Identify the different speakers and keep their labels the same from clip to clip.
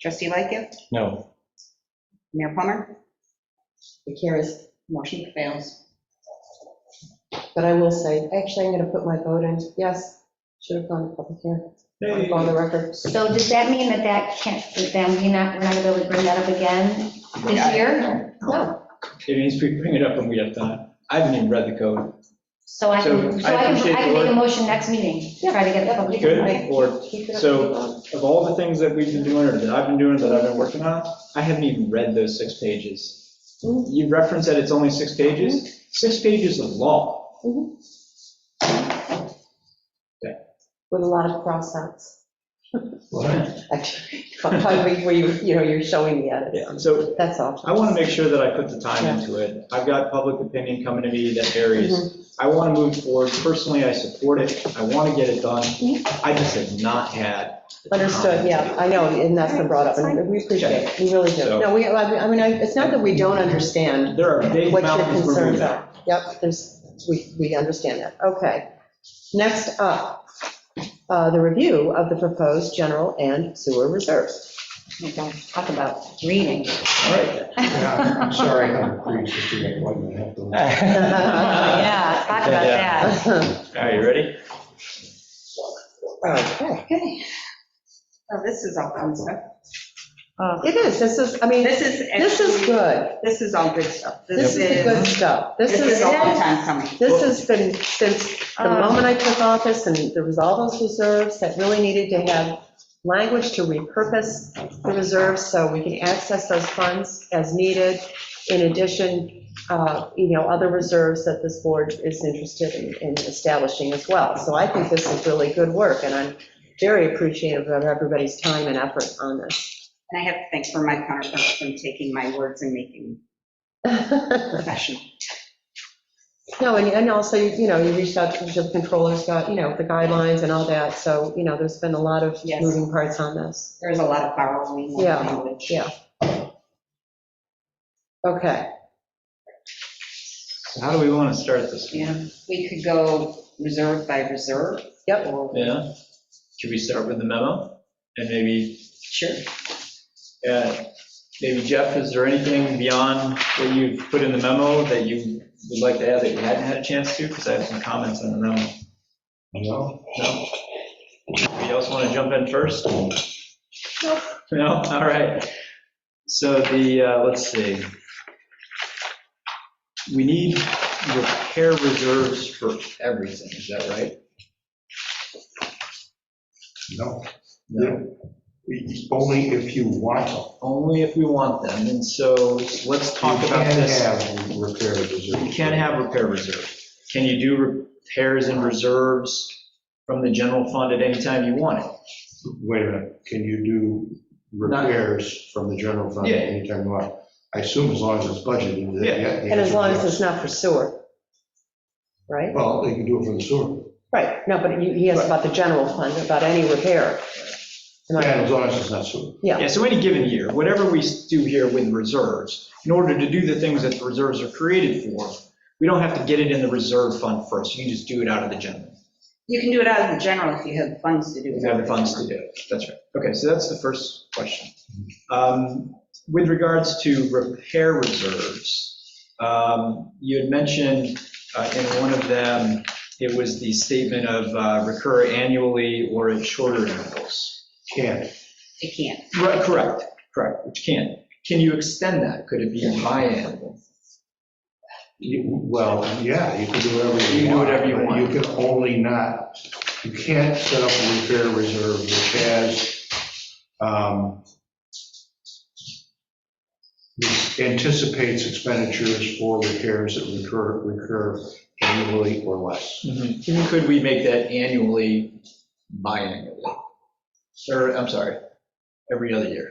Speaker 1: Trustee Lightgift,
Speaker 2: No.
Speaker 1: Mayor Plummer? It carries. Motion fails.
Speaker 3: But I will say, actually, I'm going to put my vote in, yes, should have gone to public hearing,
Speaker 2: Hey.
Speaker 3: go on the record.
Speaker 4: So does that mean that that can't, then we're not, we're not gonna be able to bring that up again
Speaker 1: Yeah, I-
Speaker 4: this year? No.
Speaker 2: It means we bring it up when we have time. I haven't even read the code.
Speaker 4: So I
Speaker 2: So
Speaker 4: can, so
Speaker 2: I
Speaker 4: I can,
Speaker 2: appreciate
Speaker 4: I can
Speaker 2: the
Speaker 4: make a
Speaker 2: work.
Speaker 4: motion next meeting, try to get the public.
Speaker 2: Good.
Speaker 4: input.
Speaker 2: Or,
Speaker 3: Keep it up,
Speaker 2: so-
Speaker 3: keep on.
Speaker 2: of all the things that we've been doing, or that I've been doing, that I've been working on, I haven't even read those six pages. You reference that it's only six pages? Six pages of law.
Speaker 3: With a lot of cross-outs.
Speaker 2: Yeah.
Speaker 3: Actually, probably Where you, you know, you're showing the edits,
Speaker 2: So
Speaker 3: that's all.
Speaker 2: I want to make sure that I put the time into it. I've got public opinion coming to me that
Speaker 3: Mm-hmm.
Speaker 2: varies. I want to move forward. Personally, I support it. I want to get it done. I just have not had. the time.
Speaker 3: Mm-hmm. Understood, yeah, I know, and that's been brought up, and we appreciate it, we really do.
Speaker 2: So-
Speaker 3: No, we, I mean, I, it's not that we don't understand
Speaker 2: There are big
Speaker 3: what your
Speaker 2: mountains we're
Speaker 3: concerns
Speaker 2: moving.
Speaker 3: are. Yep, there's, we, we understand that, okay. Next up, uh, the review of the proposed general and sewer reserves.
Speaker 4: We don't Talk about reading.
Speaker 2: All right.
Speaker 5: Yeah, I'm sorry, I'm agreeing with you, I wasn't gonna have to-
Speaker 3: Okay,
Speaker 4: Yeah, talk about that.
Speaker 2: All right, you ready?
Speaker 1: Okay. So Oh, this is all fun stuff.
Speaker 4: Oh,
Speaker 3: It is, this is, I mean,
Speaker 1: This is.
Speaker 3: this is good,
Speaker 1: This is all good stuff.
Speaker 3: this is the good stuff. This
Speaker 1: This is
Speaker 3: is,
Speaker 1: a long time coming.
Speaker 3: this has been, since the
Speaker 4: Um,
Speaker 3: moment I took office, and there was all those reserves that really needed to have language to repurpose the reserves, so we can access those funds as needed. In addition, uh, you know, other reserves that this board is interested in- in establishing as well. So I think this is really good work, and I'm very appreciative of everybody's time and effort on this.
Speaker 1: And I have to thank for my counterparts from taking my words and making them professional.
Speaker 3: No, and, and also, you know, you reached out to the controllers, got, you know, the guidelines and all that, so, you know, there's been a lot of
Speaker 1: Yes.
Speaker 3: moving parts on this.
Speaker 1: There's a lot of borrowing of
Speaker 3: Yeah,
Speaker 1: language.
Speaker 3: yeah. Okay,
Speaker 2: So How do we want to start this?
Speaker 1: You know, we could go reserve by reserve.
Speaker 3: Yep.
Speaker 1: Or,
Speaker 2: Yeah, should we start with the memo? And maybe,
Speaker 1: sure.
Speaker 2: uh, maybe Jeff, is there anything beyond what you've put in the memo that you would like to add that you hadn't had a chance to? Because I have some comments on the memo.
Speaker 5: No,
Speaker 2: No? Anybody else want to jump in first? No, all right. So the, uh, let's see. We need repair reserves for everything, is that right?
Speaker 5: no, no. It's only if you want to.
Speaker 2: Only if we want them, and so let's talk about this.
Speaker 5: You can have repair reserve.
Speaker 2: You can't have repair reserve. Can you do repairs and reserves from the general fund at any time you want it?
Speaker 5: Wait a minute, can you do
Speaker 2: Not-
Speaker 5: repairs from the general fund
Speaker 2: Yeah.
Speaker 5: anytime you want? I assume as long as it's budgeted. that-
Speaker 2: Yeah.
Speaker 5: the
Speaker 3: and as
Speaker 5: answer
Speaker 3: long
Speaker 5: is
Speaker 3: as it's not for sewer, right?
Speaker 5: yes. Well, they can do it for the sewer,
Speaker 3: Right, no, but you- he asked about the general fund, about any repair. Am I-
Speaker 5: and as long as it's not sewer.
Speaker 3: Yeah.
Speaker 2: Yeah, so any given year, whatever we do here with reserves, in order to do the things that the reserves are created for, we don't have to get it in the reserve fund first. You can just do it out of the general.
Speaker 1: You can do it out of the general if you have funds to do it.
Speaker 2: We have the funds to do it. That's right. Okay, so that's the first question. Um, With regards to repair reserves, um, you had mentioned uh, in one of them, it was the statement of uh, recur annually or at shorter intervals.
Speaker 5: Can't,
Speaker 1: It can't.
Speaker 2: Right, Correct, correct, which can. Can you extend that? Could it be biannual?
Speaker 5: You- well, yeah, you can do
Speaker 2: You
Speaker 5: whatever you want.
Speaker 2: can do whatever you
Speaker 5: but
Speaker 2: want.
Speaker 5: You can only not, you can't set up a repair reserve which has um, which anticipates expenditures for repairs that recur, recur annually or less.
Speaker 2: Could we make that annually, biannually? Or, I'm sorry, every other year?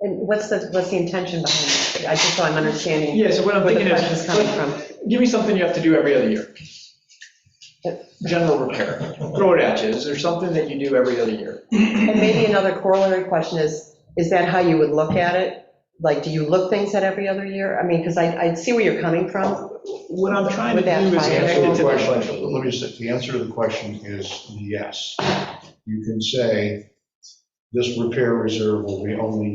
Speaker 3: And what's the, what's the intention behind that? I just so I'm understanding
Speaker 2: Yeah, so what I'm
Speaker 3: where the
Speaker 2: thinking
Speaker 3: question's coming
Speaker 2: is,
Speaker 3: from.
Speaker 2: give me something you have to do every other year. General repair, throw it at you, is there something that you do every other year?
Speaker 3: And maybe another corollary question is, is that how you would look at it? Like, do you look things at every other year? I mean, because I, I see where you're coming from.
Speaker 2: What I'm trying to
Speaker 3: With that
Speaker 2: do is
Speaker 5: The
Speaker 2: connect
Speaker 3: biannual
Speaker 2: it to the
Speaker 5: answer to the
Speaker 2: budget.
Speaker 5: question, let me just, the answer to the question is yes. You can say This repair reserve will be only